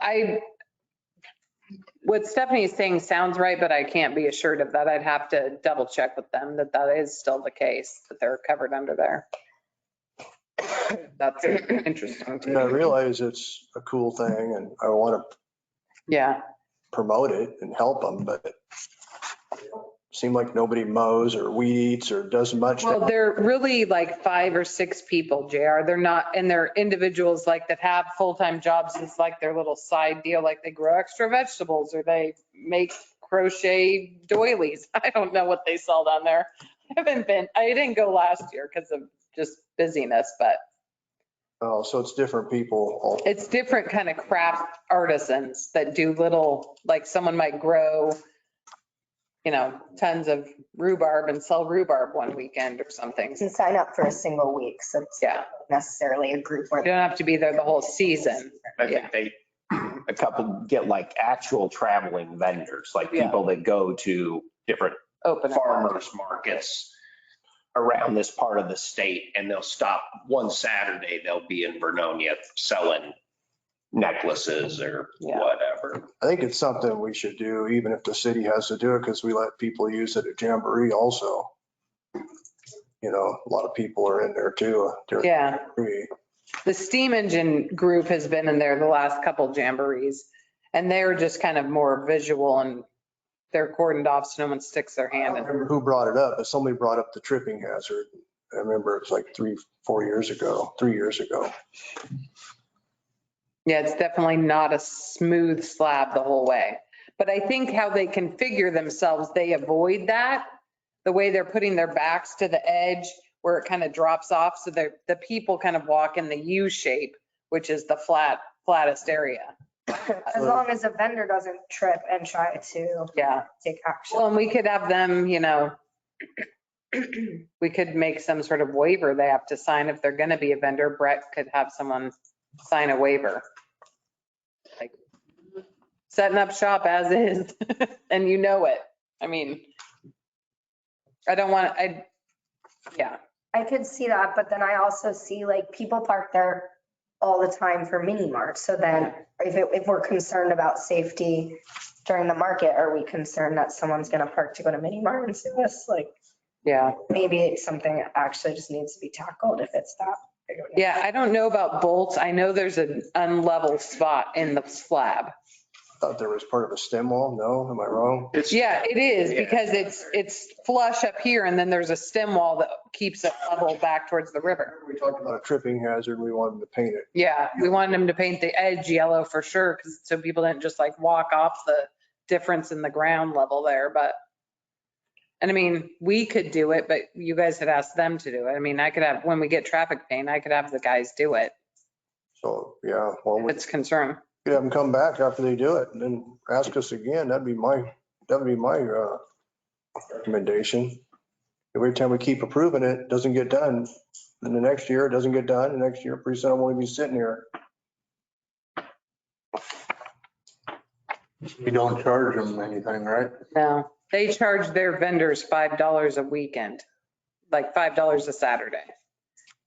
I, what Stephanie is saying sounds right, but I can't be assured of that. I'd have to double check with them that that is still the case, that they're covered under there. That's interesting. to And I me. realize it's a cool thing and I want to Yeah, promote it and help them, but it seemed like nobody mows or weed eats or does much. well, to- they're really like five or six people, JR. They're not, and they're individuals like that have full-time jobs. It's like their little side deal, like they grow extra vegetables or they make crochet doilies. I don't know what they sell down there. I haven't been, I didn't go last year because of just busyness, but Oh, so it's different people. all- it's different kind of craft artisans that do little, like someone might grow, you know, tons of rhubarb and sell rhubarb one weekend or something. can sign up for a single week, so it's not Yeah, necessarily a group you where. don't have to be there the whole season. I Yeah. Um, think they, a couple get like actual traveling vendors, like Yeah. people that go to different Open. it. farmers markets around this part of the state and they'll stop one Saturday, they'll be in Vernonia selling necklaces or Yeah. whatever. I think it's something we should do, even if the city has to do it, because we let people use it at Jamboree also. You know, a lot of people are in there too uh, during Yeah, Jamboree. the steam engine group has been in there the last couple jamborees and they're just kind of more visual and they're cordoned off so no one sticks their I hand don't in. remember who brought it up, but somebody brought up the tripping hazard. I remember it was like three, four years ago, three years ago. Yeah, it's definitely not a smooth slab the whole way. But I think how they configure themselves, they avoid that. The way they're putting their backs to the edge where it kind of drops off. So the, the people kind of walk in the U shape, which is the flat, flattest area. As long as a vendor doesn't trip and try to Yeah. take action. Well, and we could have them, you know, we could make some sort of waiver they have to sign if they're going to be a vendor. Brett could have someone sign a waiver. Like Setting up shop as is, and you know it. I mean, I don't want, I, yeah, I could see that, but then I also see like people park there all the time for mini marts. So then if, it- if we're concerned about safety during the market, are we concerned that someone's going to park to go to mini mart and see this? Like yeah. maybe it's something that actually just needs to be tackled if it's that. big of an Yeah, I don't know about bolts. I know there's an unlevel spot in the slab. Thought there was part of a stem wall. No, am I wrong? It's- Yeah, it is Yeah. because it's, it's flush up here and then there's a stem wall that keeps it level back towards the river. We talked about a tripping hazard. We wanted to paint it. Yeah, we wanted them to paint the edge yellow for sure, 'cause- so people didn't just like walk off the difference in the ground level there, but. And I mean, we could do it, but you guys had asked them to do it. I mean, I could have, when we get traffic paint, I could have the guys do it. So, yeah, well, we It's concern. could have them come back after they do it and then ask us again. That'd be my, that'd be my uh, recommendation. Every time we keep approving it, it doesn't get done. Then the next year, it doesn't get done. The next year, pretty soon I won't even be sitting here. We don't charge them anything, right? No, they charge their vendors $5 a weekend, like $5 a Saturday.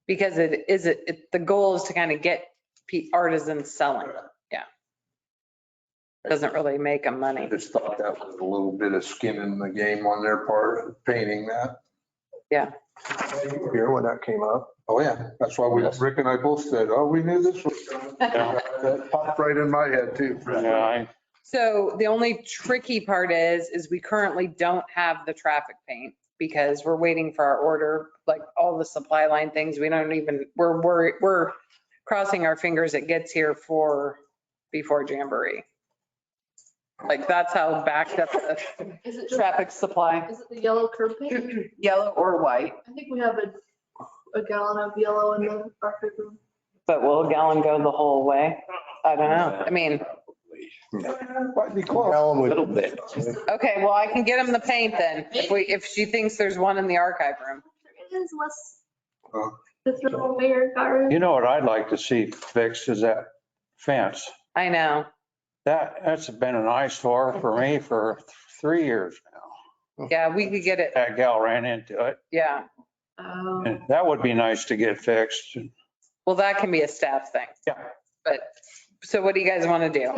Because it is, it, the goal is to kind of get pe- artisans selling. Yeah. Doesn't really make them I money. just thought that was a little bit of skin in the game on their part, painting that. Here when that came up. Oh, yeah, that's why we, Rick and I both said, oh, we knew this was. coming." That popped right in my head too. So the only tricky part is, is we currently don't have the traffic paint because we're waiting for our order, like all the supply line things. We don't even, we're, we're, we're crossing our fingers it gets here for, before Jamboree. Like that's how backed up the Is it just, traffic supply, is it the yellow curb paint? yellow or white, I think we have a, a gallon of yellow in the market room. but will a gallon go the whole way? I don't know. I mean, Might be close. Alan A would- little bit. okay, well, I can get him the paint then if we, if she thinks there's one in the archive room. There is less Huh. to throw away or got rid You know what I'd like to see fixed is that fence. I know. That, that's been an eyesore for me for three years now. Yeah, we could get it. That gal ran into it, Yeah. of. and that would be nice to get fixed. Well, that can be a staff thing. Yeah. But, so what do you guys want to do?